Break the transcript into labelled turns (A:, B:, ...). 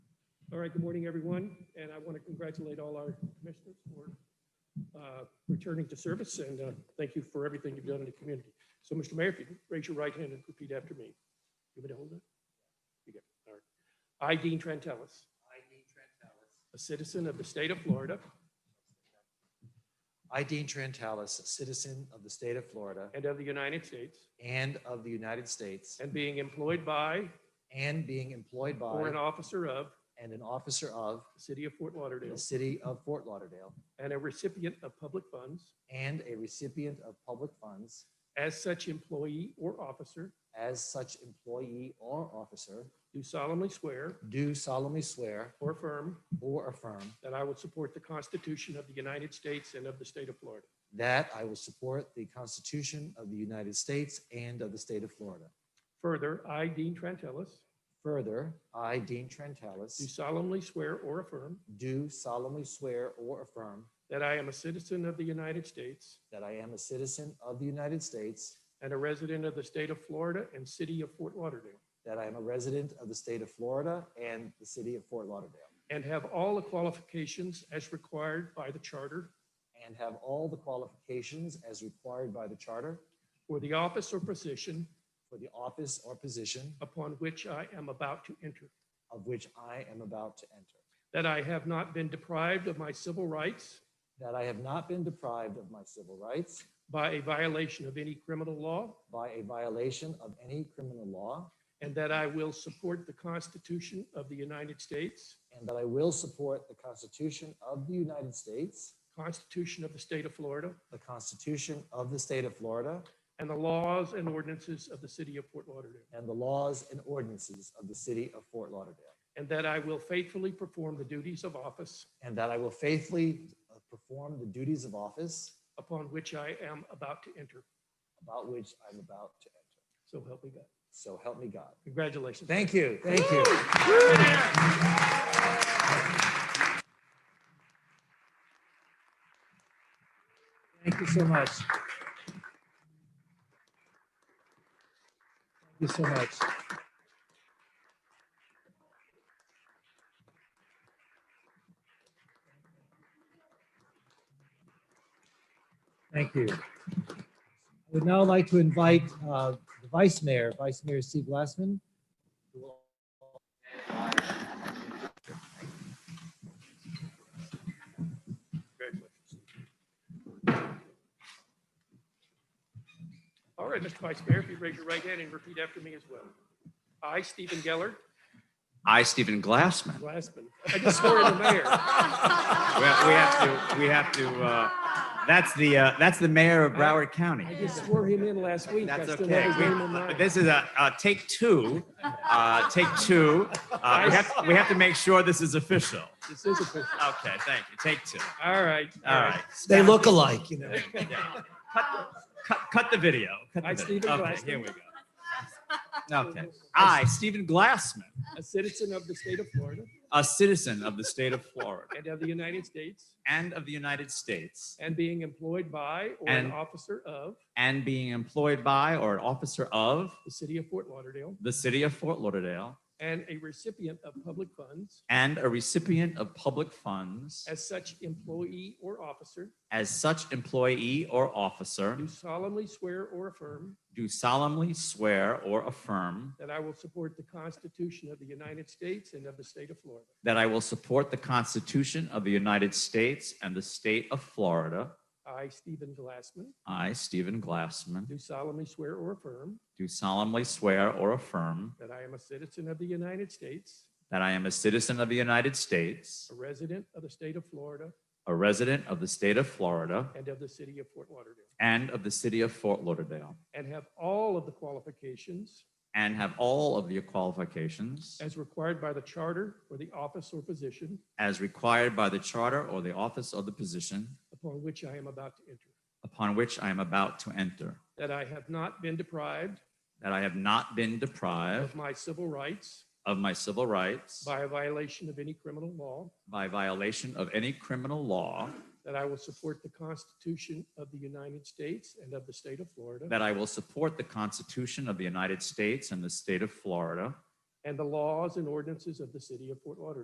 A: All right, good morning, everyone, and I want to congratulate all our commissioners for uh, returning to service, and uh, thank you for everything you've done in the community. So, Mr. Mayor, if you could raise your right hand and repeat after me. You want me to hold it? You got it, all right. I, Dean Trentalis,
B: I, Dean Trentalis.
A: a citizen of the state of Florida
B: I, Dean Trentalis, a citizen of the state of Florida
A: and of the United States,
B: and of the United States,
A: and being employed by
B: and being employed
A: or an
B: by
A: officer of
B: and an officer of
A: the city of Fort
B: the
A: Lauderdale
B: city of Fort Lauderdale,
A: and a recipient of public funds,
B: and a recipient of public funds
A: as such employee or officer,
B: as such employee or officer,
A: do solemnly swear
B: do solemnly swear
A: or affirm
B: or affirm
A: That I will support the Constitution of the United States and of the state of Florida.
B: that I will support the Constitution of the United States and of the state of Florida.
A: Further, I, Dean Trentalis,
B: Further, I, Dean
A: do
B: Trentalis,
A: solemnly swear or affirm
B: do solemnly swear or affirm
A: that I am a citizen of the United States
B: That I am a citizen of the United States.
A: and a resident of the state of Florida and city of Fort Lauderdale,
B: That I am a resident of the state of Florida and the city of Fort Lauderdale.
A: and have all the qualifications as required by the charter
B: And have all the qualifications as required by the charter
A: for the office or position
B: for the office or position
A: upon which I am about to enter.
B: of which I am about to enter.
A: That I have not been deprived of my civil rights
B: That I have not been deprived of my civil rights
A: by a violation of any criminal law,
B: by a violation of any criminal law.
A: and that I will support the Constitution of the United States
B: And that I will support the Constitution of the United States,
A: Constitution of the State of Florida
B: the Constitution of the state of Florida,
A: and the laws and ordinances of the City of Fort Lauderdale,
B: and the laws and ordinances of the city of Fort Lauderdale.
A: and that I will faithfully perform the duties of office
B: And that I will faithfully uh, perform the duties of office
A: upon which I am about to enter.
B: about which I'm about to enter.
A: So help me God.
B: So help me God.
A: Congratulations.
B: Thank you. Thank you. Thank you so much. Thank you so much. Thank you. I would now like to invite uh, the Vice Mayor, Vice Mayor Steve Glassman. who will
A: Congratulations. All right, Mr. Vice Mayor, if you raise your right hand and repeat after me as well. I, Stephen Geller,
C: I, Stephen Glassman.
A: Glassman, I just swore in the mayor.
C: We have, we have to, we have to, uh, that's the, uh, that's the mayor of Broward County.
A: I just swore him in last week.
C: That's
A: I still have
C: okay.
A: his
C: We-
A: name in mind.
C: but This is a, uh, take two, uh, take two. Uh, we have, we have to make sure this is official.
A: This is official.
C: Okay, thank you. Take two.
A: All right.
C: All right.
B: They look alike, you know.
C: Yeah. Cut, cut, cut the video. Cut the
A: I,
C: video.
A: Stephen
C: Okay,
A: Glassman.
C: Here we go. Okay. Ah. I, Stephen Glassman,
A: A citizen of the state of Florida
C: a citizen of the state of Florida
A: and of the United States
C: and of the United States,
A: and being employed by or an
C: And-
A: officer of
C: and being employed by or an officer of
A: the city of Fort Lauderdale
C: the city of Fort Lauderdale
A: and a recipient of public funds
C: and a recipient of public funds
A: as such employee or officer
C: as such employee or officer
A: do solemnly swear or affirm
C: do solemnly swear or affirm
A: that I will support the Constitution of the United States and of the state of Florida
C: that I will support the Constitution of the United States and the state of Florida.
A: I Stephen Glassman
C: I, Stephen Glassman,
A: do solemnly swear or affirm
C: do solemnly swear or affirm
A: that I am a citizen of the United States
C: that I am a citizen of the United States,
A: a resident of the state of Florida
C: a resident of the state of Florida,
A: and of the city of Fort Lauderdale,
C: and of the city of Fort Lauderdale,
A: and have all of the qualifications
C: and have all of the qualifications
A: as required by the charter for the office or position
C: as required by the charter or the office of the position
A: upon which I am about to enter,
C: upon which I am about to enter,
A: that I have not been deprived
C: that I have not been
A: of
C: deprived
A: my civil rights
C: of my civil rights
A: by a violation of any criminal law,
C: by violation of any criminal law,
A: that I will support the Constitution of the United States and of the state of Florida,
C: that I will support the Constitution of the United States and the state of Florida,
A: and the laws and ordinances of the city of Fort Lauderdale.